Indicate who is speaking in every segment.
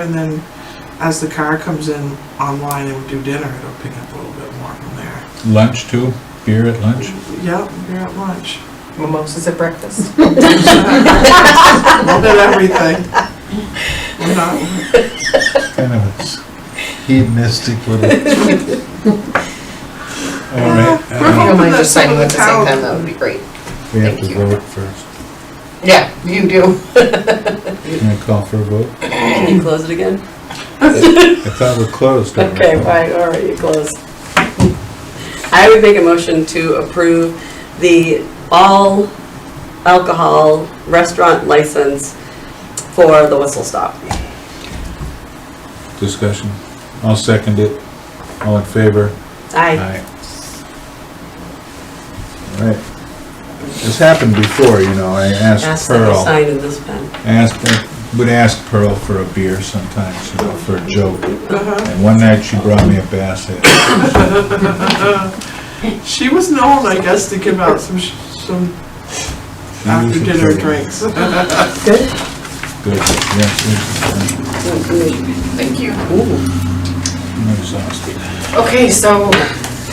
Speaker 1: And then, as the car comes in online and we do dinner, it'll pick up a little bit more from there.
Speaker 2: Lunch too? Beer at lunch?
Speaker 1: Yep, we're at lunch.
Speaker 3: Mimosas at breakfast.
Speaker 1: A little bit of everything. We're not,
Speaker 2: Kind of a s- hedonistic little. All right,
Speaker 1: We're
Speaker 2: uh,
Speaker 3: If you don't mind
Speaker 1: that
Speaker 3: just
Speaker 1: some
Speaker 3: signing
Speaker 1: of
Speaker 3: at
Speaker 1: the
Speaker 3: the same
Speaker 1: towns-
Speaker 3: time, that would be great.
Speaker 2: we have
Speaker 3: Thank
Speaker 2: to
Speaker 3: you.
Speaker 2: vote first.
Speaker 3: Yeah, you do.
Speaker 2: Can I call for a vote?
Speaker 4: Can you close it again?
Speaker 2: I thought we're closed. don't we?
Speaker 4: Okay, fine, all right, you close. I would make a motion to approve the all alcohol restaurant license for the Whistle Stop.
Speaker 2: Discussion. I'll second it. All in favor?
Speaker 4: Aye.
Speaker 2: All right. This happened before, you know, I asked
Speaker 4: Ask that you
Speaker 2: Pearl, I
Speaker 4: sign in this pen.
Speaker 2: asked, I would ask Pearl for a beer sometimes, you know, for a joke.
Speaker 1: uh-huh.
Speaker 2: And one night she brought me a basset.
Speaker 1: She was known, I guess, to give out some, sh- some after dinner drinks.
Speaker 4: Good.
Speaker 2: Good, yes, yes,
Speaker 3: Thank you.
Speaker 2: I'm exhausted.
Speaker 3: Okay, so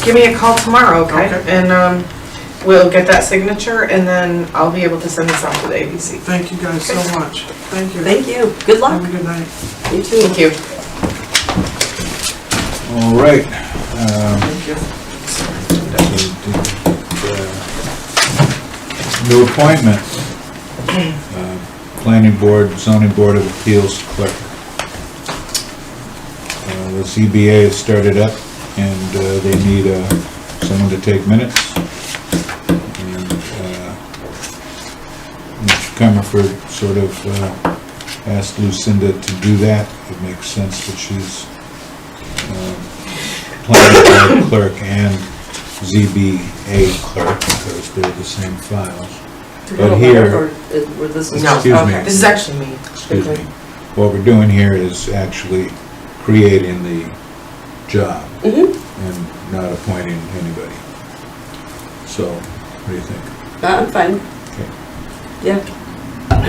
Speaker 3: give me a call tomorrow, okay?
Speaker 1: Okay.
Speaker 3: And um, we'll get that signature and then I'll be able to send this out to the ABC.
Speaker 1: Thank you guys so much. Thank you.
Speaker 4: Thank you, good
Speaker 1: Have a
Speaker 4: luck.
Speaker 1: good night.
Speaker 4: You too.
Speaker 3: Thank you.
Speaker 2: All right. um,
Speaker 1: Thank you.
Speaker 2: so did, uh, New appointment. Uh, Planning Board, Zoning Board of Appeals Clerk. Uh, The CBA has started up and uh, they need uh, someone to take minutes. And uh, Mr. Comerford sort of uh, asked Lucinda to do that. It makes sense that she's um, planning board clerk and ZBA clerk, because they're the same files. But here,
Speaker 4: uh, Where this is.
Speaker 3: No,
Speaker 2: excuse me.
Speaker 3: okay. This is actually me.
Speaker 2: excuse me, what we're doing here is actually creating the job
Speaker 4: Mhm.
Speaker 2: and not appointing anybody. So, what do you think?
Speaker 4: Uh, I'm fine. Yeah.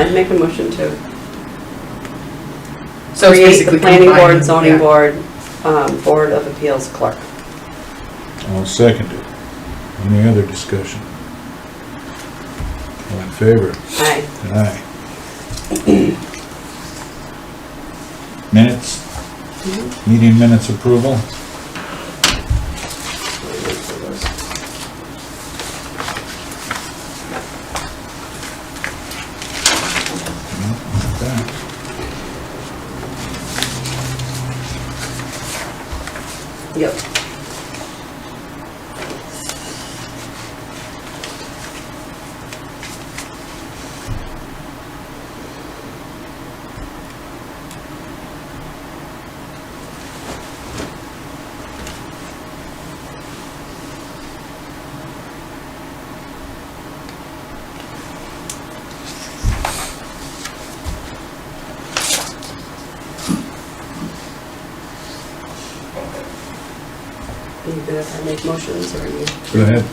Speaker 4: I'd make a motion to
Speaker 3: So it's
Speaker 4: create the
Speaker 3: basically
Speaker 4: planning
Speaker 3: combining-
Speaker 4: board, zoning
Speaker 3: yeah.
Speaker 4: board, um, board of appeals clerk.
Speaker 2: I'll second it. Any other discussion? All in favor?
Speaker 4: Aye.
Speaker 2: Aye. Minutes? Meeting minutes approval? Okay.
Speaker 4: Yep. Are you good if I make motions or are you?
Speaker 2: Go ahead.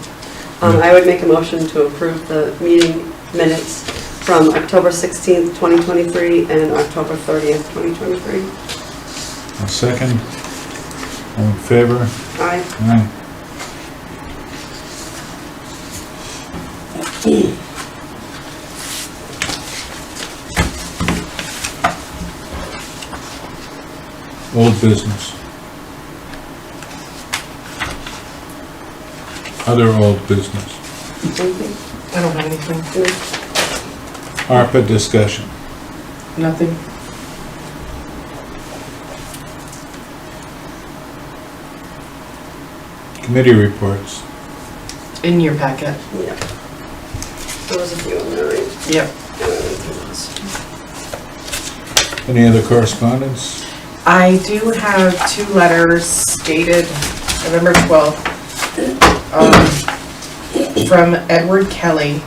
Speaker 4: Um, I would make a motion to approve the meeting minutes from October 16th, 2023 and October 30th, 2023.
Speaker 2: I'll second. All in favor?
Speaker 4: Aye.
Speaker 2: Aye. Old business. Other old business.
Speaker 4: Anything?
Speaker 3: I don't have anything.
Speaker 2: ARPA discussion.
Speaker 3: Nothing.
Speaker 2: Committee reports.
Speaker 3: In your packet.
Speaker 4: Yeah. There was a few in there, right? Uh,
Speaker 3: Yep.
Speaker 4: Yeah, I went through those.
Speaker 2: Any other correspondence?
Speaker 3: I do have two letters dated November 12th um, from Edward Kelly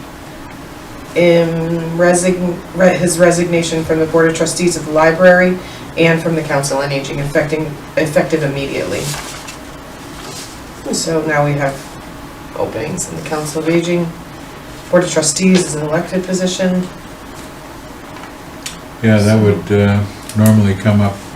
Speaker 3: in resign, re- his resignation from the Board of Trustees of the Library and from the Council on Aging affecting, effective immediately. So now we have openings in the Council of Aging. Board of Trustees is an elected position.
Speaker 2: Yeah, that would uh, normally come up